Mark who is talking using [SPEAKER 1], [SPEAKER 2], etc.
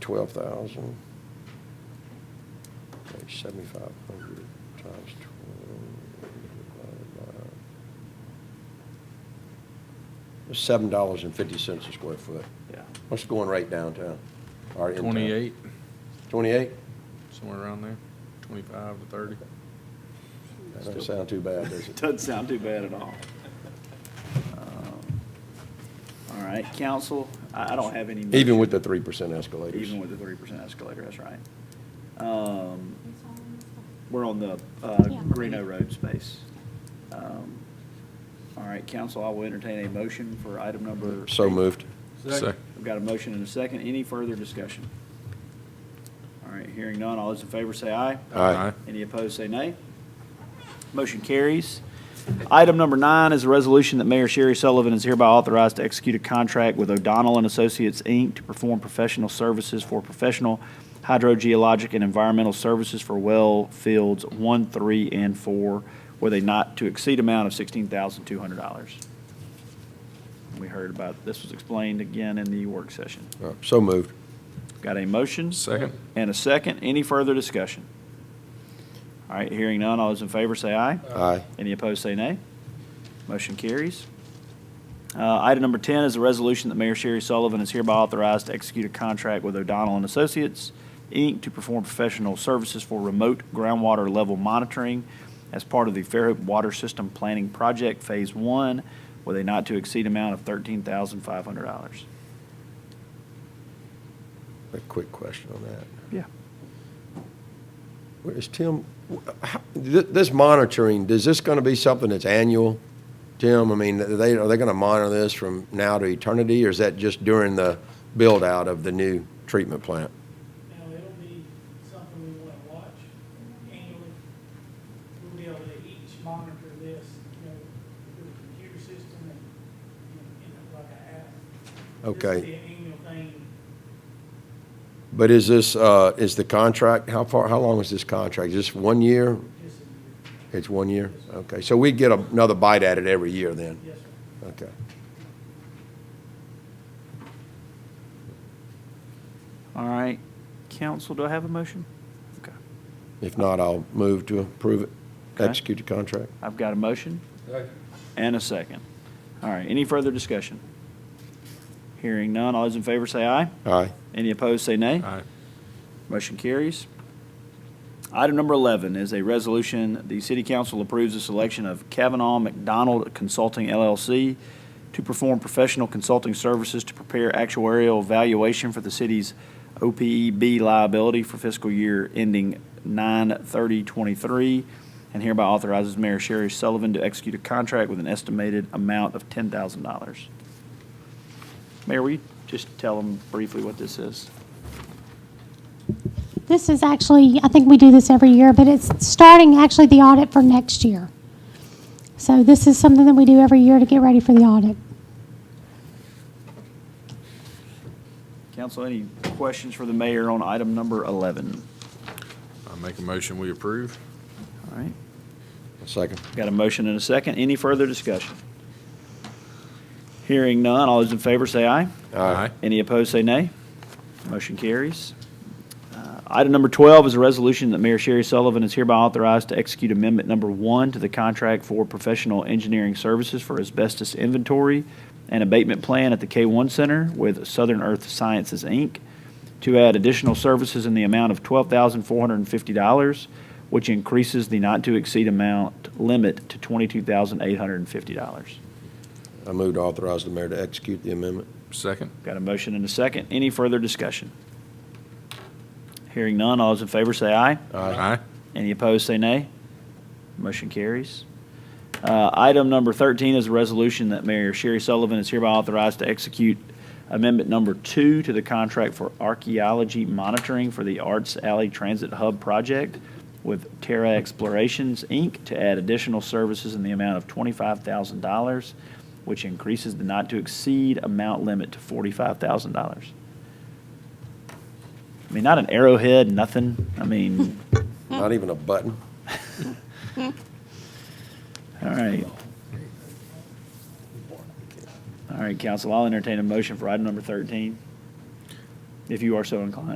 [SPEAKER 1] twelve thousand. Make seventy-five hundred times twelve divided by seven dollars and fifty cents a square foot.
[SPEAKER 2] Yeah.
[SPEAKER 1] What's going right downtown? or in town?
[SPEAKER 3] Twenty-eight,
[SPEAKER 1] Twenty-eight?
[SPEAKER 3] somewhere around there, twenty-five to thirty.
[SPEAKER 1] That doesn't sound too bad, does it?
[SPEAKER 2] Doesn't sound too bad at all. Um, All right, council, I, I don't have any.
[SPEAKER 1] Even
[SPEAKER 2] motion.
[SPEAKER 1] with the three percent escalators.
[SPEAKER 2] Even with the three percent escalator, that's right. Um, We're on the uh,
[SPEAKER 4] Yeah.
[SPEAKER 2] Reno Road space. Um, All right, council, I will entertain a motion for item number.
[SPEAKER 1] So moved.
[SPEAKER 3] Second.
[SPEAKER 2] I've got a motion and a second. Any further discussion? All right, hearing none. All those in favor say aye.
[SPEAKER 1] Aye.
[SPEAKER 2] Any opposed, say nay. Motion carries. Item number nine is a resolution that Mayor Sherry Sullivan is hereby authorized to execute a contract with O'Donnell and Associates, Inc. to perform professional services for professional hydrogeologic and environmental services for well fields one, three, and four with a not-to-exceed amount of $16,200. We heard about, this was explained again in the work session.
[SPEAKER 1] Uh, So moved.
[SPEAKER 2] Got a motion?
[SPEAKER 3] Second.
[SPEAKER 2] And a second. Any further discussion? All right, hearing none. All those in favor say aye.
[SPEAKER 1] Aye.
[SPEAKER 2] Any opposed, say nay. Motion carries. Uh, Item number 10 is a resolution that Mayor Sherry Sullivan is hereby authorized to execute a contract with O'Donnell and Associates, Inc., to perform professional services for remote groundwater level monitoring as part of the Fairhope Water System Planning Project Phase 1 with a not-to-exceed amount of $13,500.
[SPEAKER 1] A quick question on that.
[SPEAKER 2] Yeah.
[SPEAKER 1] Where is Tim, wh- how- th- this monitoring, is this going to be something that's annual? Tim, I mean, are they, are they going to monitor this from now to eternity, or is that just during the build-out of the new treatment plant?
[SPEAKER 5] Now, it'll be something we want to watch annually. We'll be able to each monitor this, you know, with a computer system and, and, you know, like an app. This will be
[SPEAKER 1] Okay,
[SPEAKER 5] an annual thing.
[SPEAKER 1] but is this, uh, is the contract, how far, how long is this contract? Is this one year?
[SPEAKER 5] Just a
[SPEAKER 1] It's one year? Okay, so we get another bite at it every year then?
[SPEAKER 5] year. Yes, sir.
[SPEAKER 1] Okay.
[SPEAKER 2] All right, council, do I have a motion? Okay.
[SPEAKER 1] If not, I'll move to approve it,
[SPEAKER 2] Okay.
[SPEAKER 1] execute the contract.
[SPEAKER 2] I've got a motion and a second. All right, any further discussion? Hearing none, all those in favor say aye.
[SPEAKER 1] Aye.
[SPEAKER 2] Any opposed, say nay.
[SPEAKER 3] Aye.
[SPEAKER 2] Motion carries. Item number 11 is a resolution, the city council approves the selection of Kavanaugh McDonald Consulting LLC to perform professional consulting services to prepare actuarial valuation for the city's OPEB liability for fiscal year ending 9/30/23, and hereby authorizes Mayor Sherry Sullivan to execute a contract with an estimated amount of $10,000. Mayor, will you just tell them briefly what this is?
[SPEAKER 4] This is actually, I think we do this every year, but it's starting actually the audit for next year. So this is something that we do every year to get ready for the audit.
[SPEAKER 2] Council, any questions for the mayor on item number 11?
[SPEAKER 3] I make a motion, we approve.
[SPEAKER 2] All right,
[SPEAKER 1] Second.
[SPEAKER 2] got a motion and a second. Any further discussion? Hearing none, all those in favor say aye. Any opposed, say nay. Motion carries. Uh, Item number 12 is a resolution that Mayor Sherry Sullivan is hereby authorized to execute Amendment Number 1 to the contract for professional engineering services for asbestos inventory and abatement plan at the K1 Center with Southern Earth Sciences, Inc., to add additional services in the amount of $12,450, which increases the not-to-exceed amount limit to $22,850.
[SPEAKER 1] I move to authorize the mayor to execute the amendment.
[SPEAKER 3] Second.
[SPEAKER 2] Got a motion and a second. Any further discussion? Hearing none, all those in favor say aye.
[SPEAKER 3] Aye.
[SPEAKER 2] Any opposed, say nay. Motion carries. Uh, Item number 13 is a resolution that Mayor Sherry Sullivan is hereby authorized to execute Amendment Number 2 to the contract for archaeology monitoring for the Arts Alley Transit Hub Project with Terra Explorations, Inc., to add additional services in the amount of $25,000, which increases the not-to-exceed amount limit to $45,000. I mean, not an arrowhead, nothing. I mean,
[SPEAKER 1] Not even a button.
[SPEAKER 2] All right. All right, council, I'll entertain a motion for item number 13, if you are so inclined.